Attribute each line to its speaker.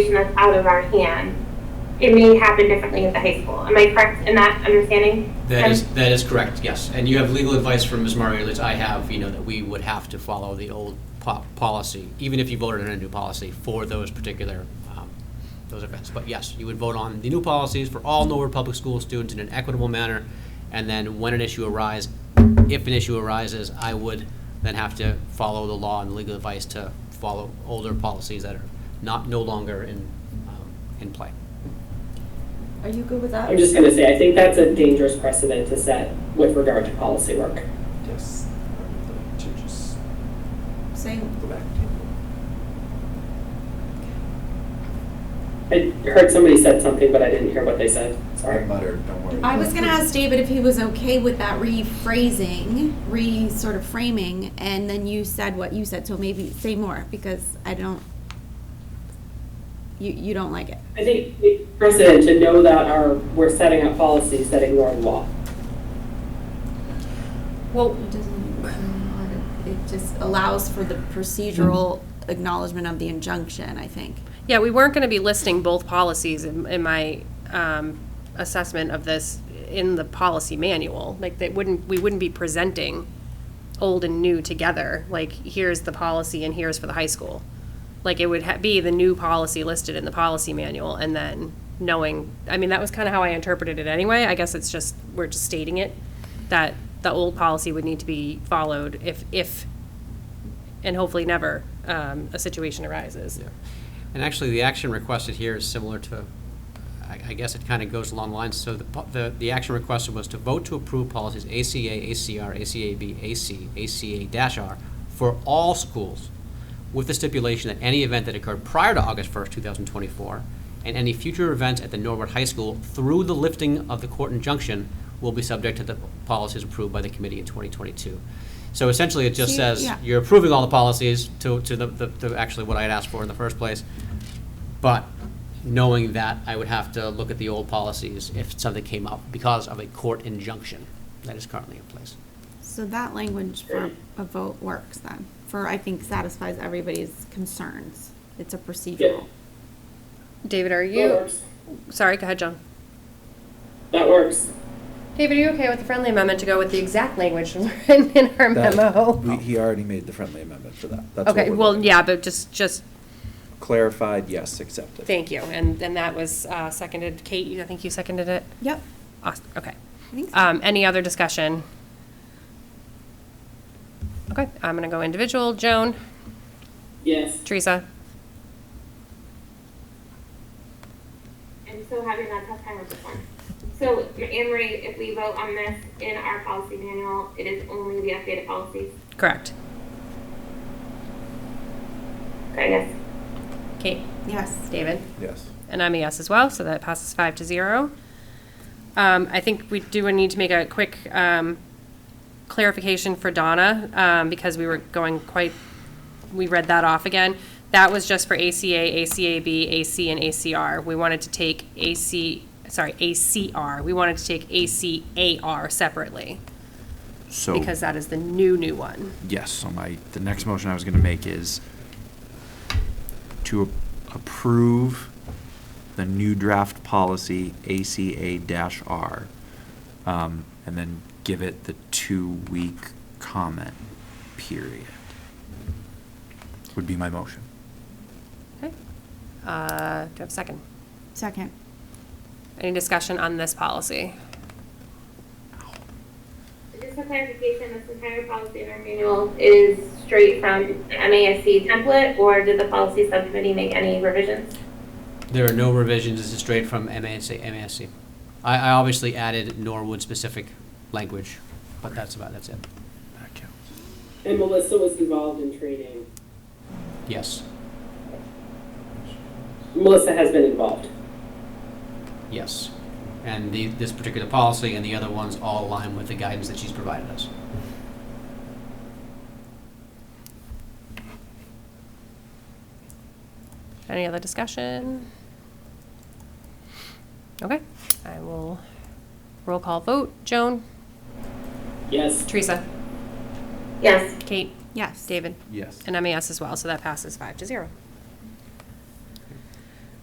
Speaker 1: situation that's out of our hand. It may happen differently at the high school. Am I correct in that understanding?
Speaker 2: That is, that is correct, yes. And you have legal advice from Ms. Mario, that I have, you know, that we would have to follow the old po- policy, even if you voted on a new policy for those particular, um, those events. But yes, you would vote on the new policies for all Norwood Public School students in an equitable manner. And then when an issue arises, if an issue arises, I would then have to follow the law and legal advice to follow older policies that are not, no longer in, um, in play.
Speaker 3: Are you good with
Speaker 4: I'm
Speaker 3: that?
Speaker 4: just gonna say, I think that's a dangerous precedent to set with regard to policy work.
Speaker 5: Yes, to just
Speaker 3: Saying,
Speaker 5: go back to.
Speaker 4: I heard somebody said something, but I didn't hear what they said, sorry.
Speaker 5: muttered, don't worry.
Speaker 6: I was gonna ask David if he was okay with that rephrasing, re sort of framing, and then you said what you said, so maybe say more, because I don't, you, you don't like it.
Speaker 4: I think it's precedent to know that our, we're setting up policies that ignore law.
Speaker 2: Well,
Speaker 6: It doesn't, it just allows for the procedural acknowledgement of the injunction, I think.
Speaker 7: Yeah, we weren't going to be listing both policies in, in my um, assessment of this in the policy manual. Like, they wouldn't, we wouldn't be presenting old and new together, like, here's the policy and here's for the high school. Like, it would ha- be the new policy listed in the policy manual and then knowing, I mean, that was kind of how I interpreted it anyway. I guess it's just, we're just stating it, that the old policy would need to be followed if, if, and hopefully never, um, a situation arises.
Speaker 2: Yeah. And actually, the action requested here is similar to, I I guess it kind of goes along the lines, so the po- the, the action requested was to vote to approve policies ACA, ACR, ACAB, AC, ACA-R for all schools, with the stipulation that any event that occurred prior to August 1st, 2024, and any future events at the Norwood High School through the lifting of the court injunction will be subject to the policies approved by the committee in 2022. So essentially, it just
Speaker 6: See,
Speaker 2: says,
Speaker 6: yeah.
Speaker 2: you're approving all the policies to, to the, the- to actually what I had asked for in the first place. But knowing that, I would have to look at the old policies if something came up because of a court injunction that is currently in place.
Speaker 6: So that language for a vote works then, for, I think, satisfies everybody's concerns. It's a procedural.
Speaker 7: David, are
Speaker 4: That
Speaker 7: you,
Speaker 4: works.
Speaker 7: sorry, go ahead, John.
Speaker 4: That works.
Speaker 7: David, are you okay with the friendly amendment to go with the exact language written in our
Speaker 8: That-
Speaker 7: memo?
Speaker 8: we- He already made the friendly amendment for that. That's what
Speaker 7: Okay,
Speaker 8: we're
Speaker 7: well,
Speaker 8: looking
Speaker 7: yeah,
Speaker 8: at.
Speaker 7: but just, just,
Speaker 8: Clarified, yes, accepted.
Speaker 7: thank you, and, and that was uh, seconded, Kate, you- I think you seconded it?
Speaker 6: Yep.
Speaker 7: Awes- Okay.
Speaker 6: I think so.
Speaker 7: Um, any other discussion? Okay, I'm gonna go individual, Joan,
Speaker 4: Yes.
Speaker 7: Teresa,
Speaker 1: I'm so having a tough time with this one. So, Anne Marie, if we vote on this in our policy manual, it is only the updated policies.
Speaker 7: correct.
Speaker 1: I guess.
Speaker 7: Kate,
Speaker 6: Yes.
Speaker 7: David?
Speaker 8: Yes.
Speaker 7: And I'm a yes E as well, so that passes five to zero. Um, I think we do need to make a quick um, clarification for Donna, um, because we were going quite, we read that off again. That was just for ACA, ACAB, AC, and ACR. We wanted to take AC, sorry, ACR, we wanted to take ACAR separately,
Speaker 9: So,
Speaker 7: because that is the new, new one.
Speaker 9: yes, so my, the next motion I was going to make is to a- approve the new draft policy ACA-R, um, and then give it the two-week comment period, would be my motion.
Speaker 7: Okay. Uh, Do I have a second?
Speaker 6: Second.
Speaker 7: Any discussion on this policy?
Speaker 1: Just for clarification, this entire policy in our manual is straight from MASC template, or did the policy subcommittee make any revisions?
Speaker 2: There are no revisions, this is straight from MASC, MASC. I, I obviously added Norwood-specific language, but that's about, that's it.
Speaker 9: That counts.
Speaker 4: And Melissa was involved in training.
Speaker 2: Yes,
Speaker 4: Melissa has been involved.
Speaker 2: yes. And the, this particular policy and the other ones all align with the guidance that she's provided us.
Speaker 7: Any other discussion? Okay, I will roll call vote. Joan,
Speaker 4: Yes.
Speaker 7: Teresa,
Speaker 1: Yes.
Speaker 7: Kate,
Speaker 6: Yes.
Speaker 7: David,
Speaker 8: Yes.
Speaker 7: and I'm a yes as well, so that passes five to zero.